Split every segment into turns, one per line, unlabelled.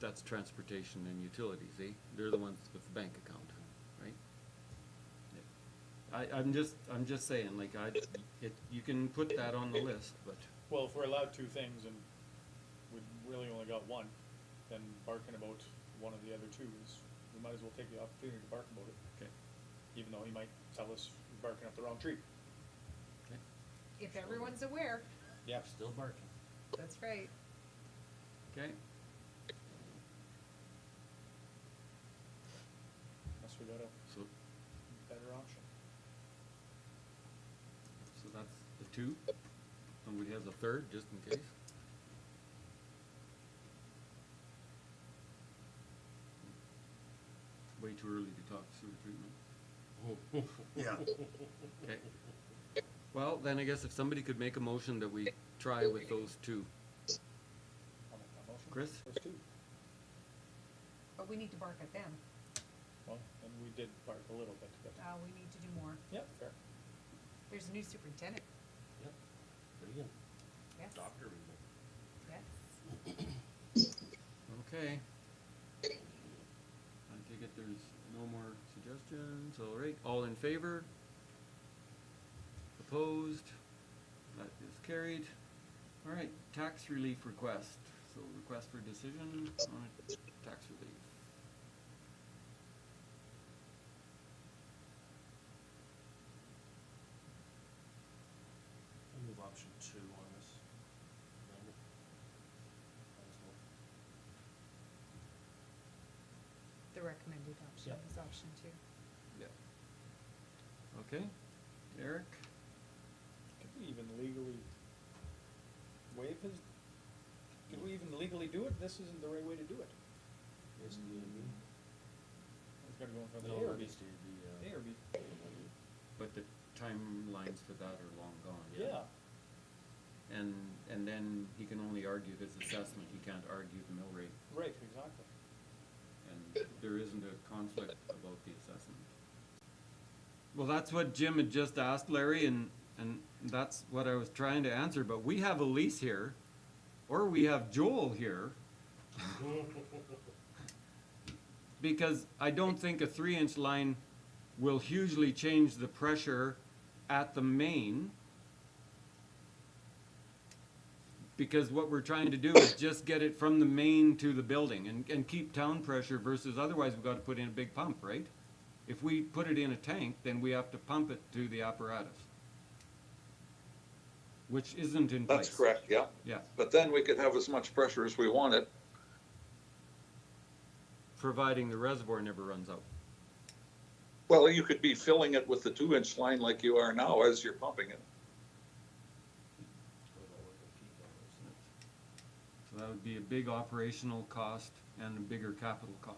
That's transportation and utilities, eh? They're the ones with the bank account, right? I, I'm just, I'm just saying, like, I, it, you can put that on the list, but,
Well, if we're allowed two things and we really only got one, then barking about one of the other two is, we might as well take the opportunity to bark about it,
okay,
even though he might tell us we're barking up the wrong tree.
okay.
If everyone's aware,
Yeah.
Still barking.
that's right.
Okay,
Unless we got a
so,
better option.
so that's the two, and we have the third, just in case. Way too early to talk sewer treatment.
Yeah,
Okay. Well, then I guess if somebody could make a motion that we try with those two.
I'll make that motion.
Chris?
Those two.
But we need to bark at them.
Well, and we did bark a little bit, but,
Uh, we need to do more.
yeah, fair.
There's a new superintendent.
Yep. Pretty good.
Yes.
Doctor removal.
Yes.
Okay. I take it there's no more suggestions, all right, all in favor? Opposed? That is carried. All right, tax relief request, so request for decision on tax relief.
I'll move option two on this. Amanda? Might as well.
The recommended option
Yep.
is option two.
Yeah. Okay, Eric?
Could we even legally waive his, could we even legally do it? This isn't the right way to do it.
Is it me?
It's gotta go in front of the
No,
ARB.
it needs to be,
A
uh.
or B?
But the timelines for that are long gone.
Yeah,
And, and then he can only argue his assessment, he can't argue the mill rate,
right, exactly.
and there isn't a conflict about the assessment. Well, that's what Jim had just asked Larry, and, and that's what I was trying to answer, but we have Elise here, or we have Joel here. Because I don't think a three-inch line will hugely change the pressure at the main. Because what we're trying to do is just get it from the main to the building and, and keep town pressure versus otherwise we've got to put in a big pump, right? If we put it in a tank, then we have to pump it to the apparatus. Which isn't in place.
That's correct, yeah.
Yeah.
But then we could have as much pressure as we wanted.
providing the reservoir never runs out.
Well, you could be filling it with the two inch line like you are now as you're pumping it.
So
Go that way, go keep that way, isn't it?
that would be a big operational cost and a bigger capital cost.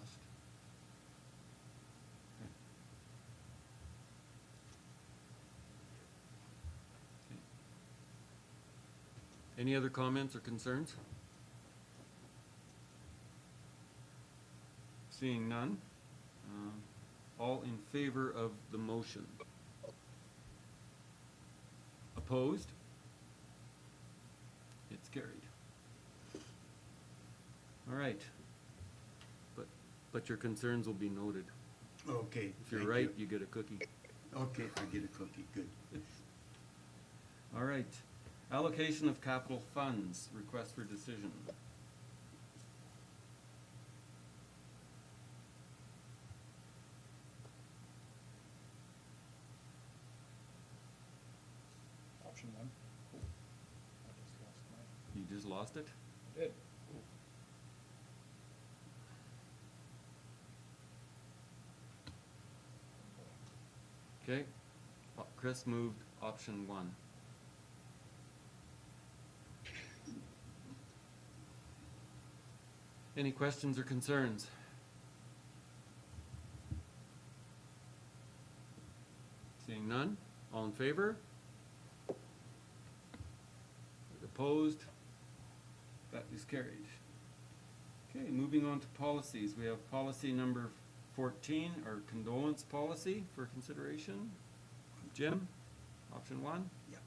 Okay. Any other comments or concerns? Seeing none, um, all in favor of the motion? Opposed? It's carried. All right. But, but your concerns will be noted.
okay.
If you're
thank
right,
you.
you get a cookie.
Okay, I get a cookie, good.
All right. Allocation of capital funds, request for decision.
Option one. I just lost my-
You just lost it?
I did.
Okay. Uh, Chris moved option one. Any questions or concerns? Seeing none, all in favor? Opposed? That is carried. Okay, moving on to policies, we have policy number fourteen, our condolence policy for consideration. Jim, option one?
Yep.